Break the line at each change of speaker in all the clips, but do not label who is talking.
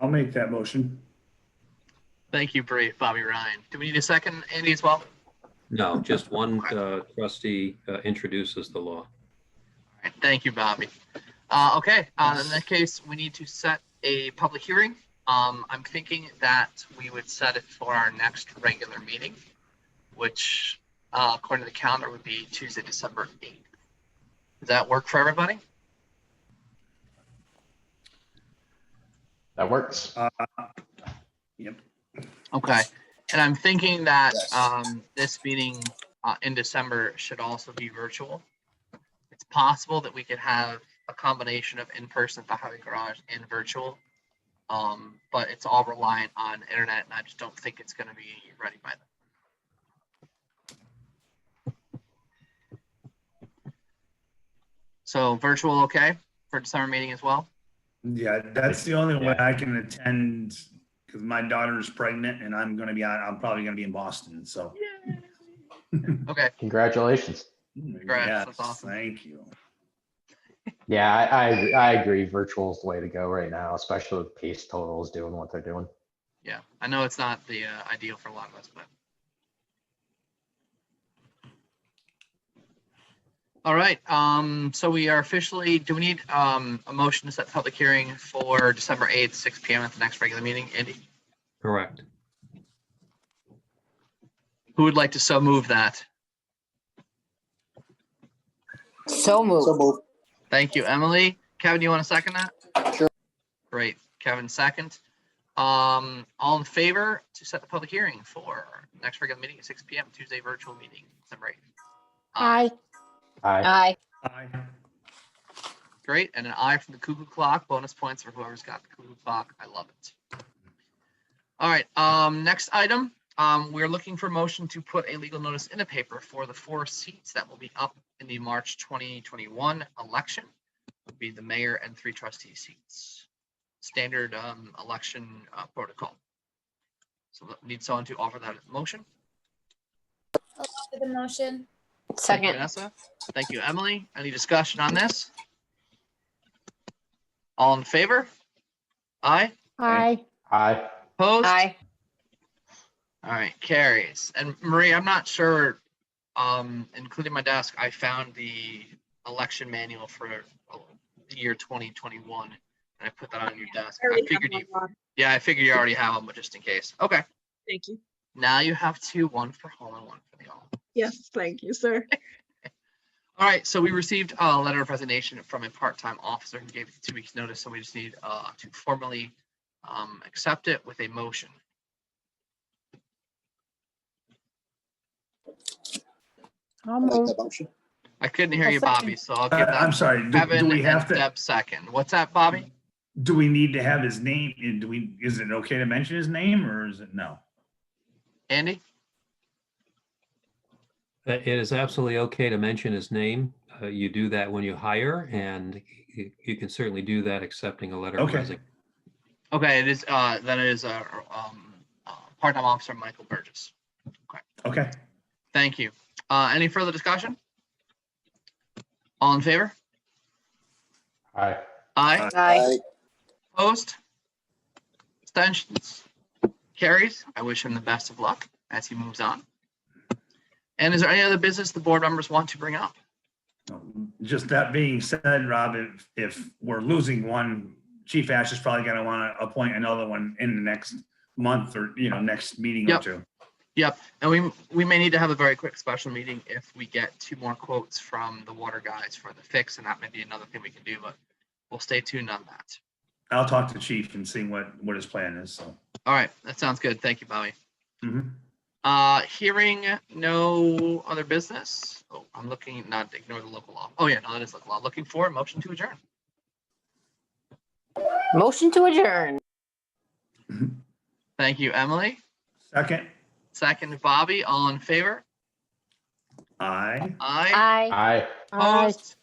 I'll make that motion.
Thank you, Bree, Bobby Ryan. Do we need a second, Andy, as well?
No, just one uh, trustee uh, introduces the law.
All right, thank you, Bobby. Uh, okay, uh, in that case, we need to set a public hearing. Um, I'm thinking that we would set it for our next regular meeting, which, uh, according to the calendar, would be Tuesday, December 8th. Does that work for everybody?
That works.
Uh,
Okay, and I'm thinking that
Yes.
um, this meeting uh, in December should also be virtual. It's possible that we could have a combination of in-person at the highway garage and virtual. Um, but it's all reliant on internet and I just don't think it's gonna be ready by then. So virtual, okay, for December meeting as well?
yeah, that's the only way I can attend because my daughter is pregnant and I'm gonna be out, I'm probably gonna be in Boston, so.
Okay,
Congratulations.
Congrats,
Yes,
that's awesome.
Thank you.
Yeah, I, I, I agree. Virtual is the way to go right now, especially with case totals doing what they're doing.
yeah, I know it's not the uh, ideal for a lot of us, but. All right, um, so we are officially, do we need, um, a motion to set the public hearing for December eighth, six P M at the next regular meeting? Andy,
Correct.
who would like to so move that?
So
So
moved.
move.
Thank you, Emily. Kevin, you want to second that?
Sure.
Great, Kevin, second. Um, all in favor to set the public hearing for next regular meeting at six P M, Tuesday virtual meeting, December eighth?
Aye.
I,
Aye.
Aye.
Great. And an eye from the cuckoo clock. Bonus points for whoever's got the cuckoo clock. I love it. All right. Um, next item. Um, we're looking for motion to put a legal notice in the paper for the four seats that will be up in the March 2021 election. Would be the mayor and three trustee seats. Standard um, election uh, protocol. So need someone to offer that motion.
for the motion?
Thank you,
Second.
Vanessa. Thank you, Emily. Any discussion on this? All in favor? Aye.
Aye.
I,
Opposed?
Aye.
All right, carries. And Marie, I'm not sure, um, including my desk, I found the election manual for uh, the year 2021. And I put that on your desk. I figured you, yeah, I figured you already have them, but just in case. Okay,
Thank you.
now you have two, one for home and one for the all.
Yes, thank you, sir.
All right, so we received a letter of resignation from a part-time officer who gave two weeks' notice, so we just need uh, to formally um, accept it with a motion.
I'll
I like
move.
that motion.
I couldn't hear
I'll
you, Bobby, so I'll
Uh,
give
I'm
that
sorry, do- do
Kevin
we
and
have to,
Deb second. What's that, Bobby?
do we need to have his name? And Do we, is it okay to mention his name or is it no?
Andy?
Uh, It is absolutely okay to mention his name. Uh, You do that when you hire, and you you can certainly do that accepting a letter of
Okay.
resignation.
Okay, it is, uh, then it is, uh, um, uh, part-time officer Michael Burgess.
Okay,
Thank you. Uh, any further discussion? All in favor?
I,
Aye.
Aye.
Aye.
Opposed? Abstentions? Carries. I wish him the best of luck as he moves on. And is there any other business the board members want to bring up?
just that being said, Rob, if, if we're losing one, Chief Ash is probably gonna wanna appoint another one in the next month or, you know, next meeting or
Yep.
two.
And we, we may need to have a very quick special meeting if we get two more quotes from the water guys for the fix, and that may be another thing we can do, but we'll stay tuned on that.
I'll talk to Chief and see what, what his plan is, so.
All right, that sounds good. Thank you, Bobby.
Mhm.
Uh, hearing no other business. Oh, I'm looking, not ignore the local law. Oh yeah, no, that is local law. Looking for a motion to adjourn.
Motion to adjourn.
Thank you, Emily.
Second,
Second, Bobby. All in favor?
aye.
Aye.
Aye.
I.
Opposed?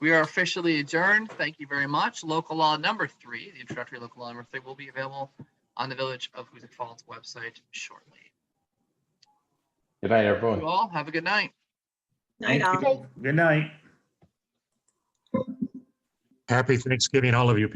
We are officially adjourned. Thank you very much. Local law number three, the introductory local law number three will be available on the Village of Huzik Falls website shortly.
Good night,
You
everyone.
all have a good night.
Night
Thank
all.
you. Good night.
Happy Thanksgiving, all of you.